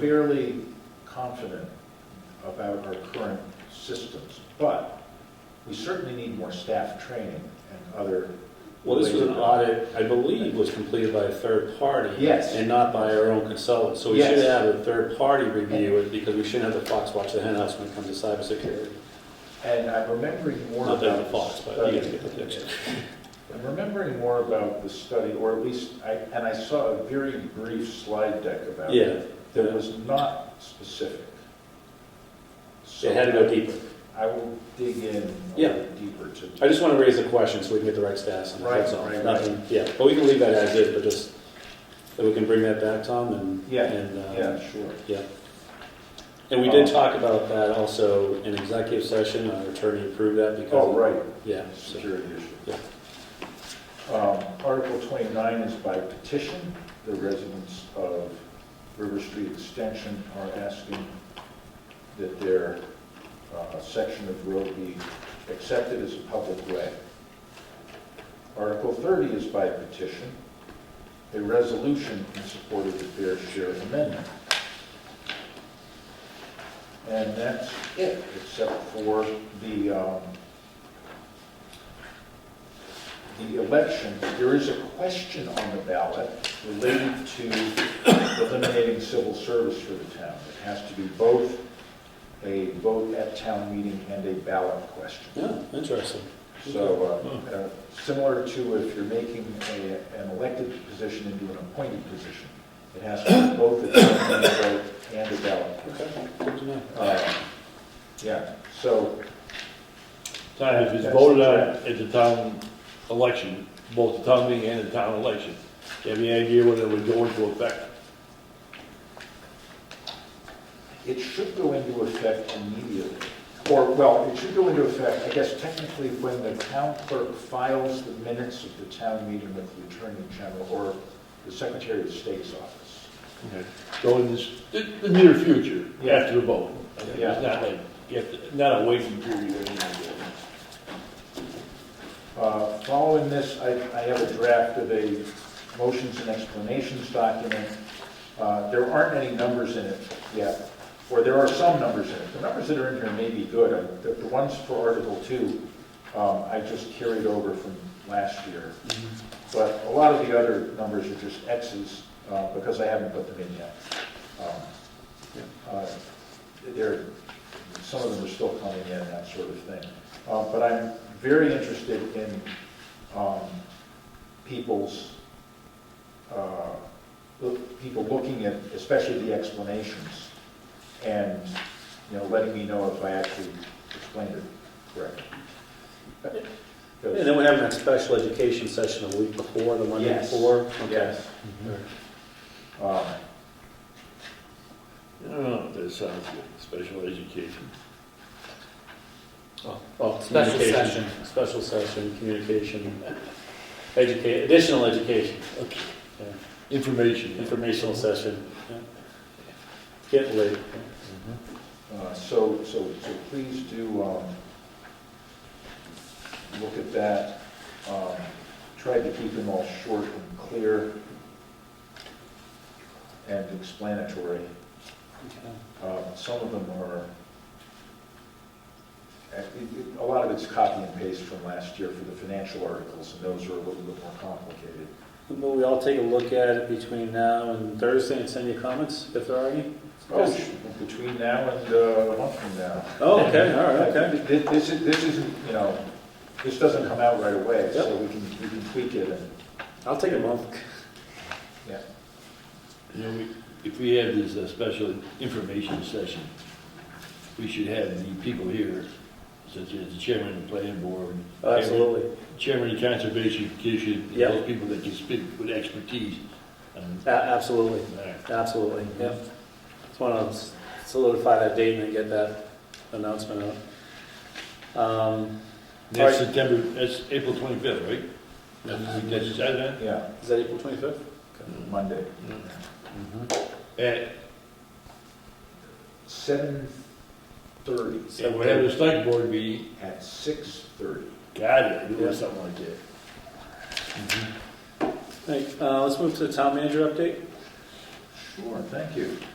fairly confident about our current systems, but we certainly need more staff training and other. Well, this was ways an of- audit, I believe, was completed by a third party. Yes. And not by our own consultant. So we Yes. should have a third party review it because we shouldn't have the fox watch the hen house when it comes to cybersecurity. And I'm remembering more Not about. that the the fox, but study. you guys get the picture. I'm remembering more about the study, or at least, I, and I saw a very brief slide deck about it. Yeah, That was not specific. So it had to go deeper. I will dig in a Yeah. little deeper to. I just want to raise the question so we can get the right stats on it, Right, that's all. right, right. Nothing, yeah, but we can leave that as is, but just, that we can bring that back, Tom, and. Yeah, and, uh, Yeah, sure. Yeah. And we did Um, talk about that also in executive session, our attorney approved that Oh, because, right, yeah, so- security issue. Um, Article 29 is by petition. The residents of River Street Extension are asking that their uh, section of road be accepted as a public way. Article 30 is by petition, a resolution in support of the Fair Share Amendment. And that's it, except for the, um, the election, there is a question on the ballot related to eliminating civil service for the town. It has to be both a vote at town meeting and a ballot question. yeah, interesting. So, uh, uh, similar to if you're making a- an elected position into an appointed position, it has to be both a town meeting vote and a ballot. Okay, good to know. Uh, Yeah, so, So if it's voted on at the town election, both the town meeting and the town election, do you have any idea when it would go into effect? It should go into effect immediately, or, well, it should go into effect, I guess technically, when the town clerk files the minutes of the town meeting with the Attorney General or the Secretary of State's office. So in this, the, the near future, Yeah. after the vote? It's Yeah. not like, you have to- not a waiting period or anything like that. Uh, Following this, I I have a draft of a motions and explanations document. Uh, There aren't any numbers in it yet, or there are some numbers in it. The numbers that are in here may be good. Uh, The the ones for Article 2, um, I just carried over from last year. But a lot of the other numbers are just X's, uh, because I haven't put them in yet. Um, uh, They're some of them are still coming in, that sort of thing. Uh, But I'm very interested in um, people's, uh, look- people looking at, especially the explanations, and, you know, letting me know if I actually explained it correctly. And then we're having that special education session a week before, the Monday Yes. before? Okay. Yes. All right. Um, I don't know if that sounds good, special education. Well, Special communication, special session, communication, educate, additional education, yeah, Information. informational session. yeah. Get late. Uh, So, so, so please do um, look at that. Um, Tried to keep them all short and clear and explanatory. Um, Some of them are, uh, it- it- a lot of it's copy and paste from last year for the financial articles, and those are a little bit more complicated. Will we all take a look at it between now and Thursday and send you comments if there are any? Oh, between now and uh, a month from now. Oh, okay, all right, okay. Th- th- This is, this isn't, you know, this doesn't come out right away, so Yep. we can, we can tweak it and, I'll take a month. yeah. You know, we- if we have this uh, special information session, we should have the people here, such as the chairman of the planning board. Oh, Absolutely. Chairman of the Conservation Commission, and Yeah. those people that can speak with expertise. um, on A- Absolutely, that. absolutely, yeah. Just want to solidify that date and then get that announcement out. Um, All right. That's September, that's April 25th, right? That's that's Saturday? Yeah, Is that April 25th? Monday. Mm. At, Seven thirty, and we're having a select board meeting. at six thirty. Got it, we Yeah. want something like that. Hey, uh, let's move to the town manager update. Sure, thank you.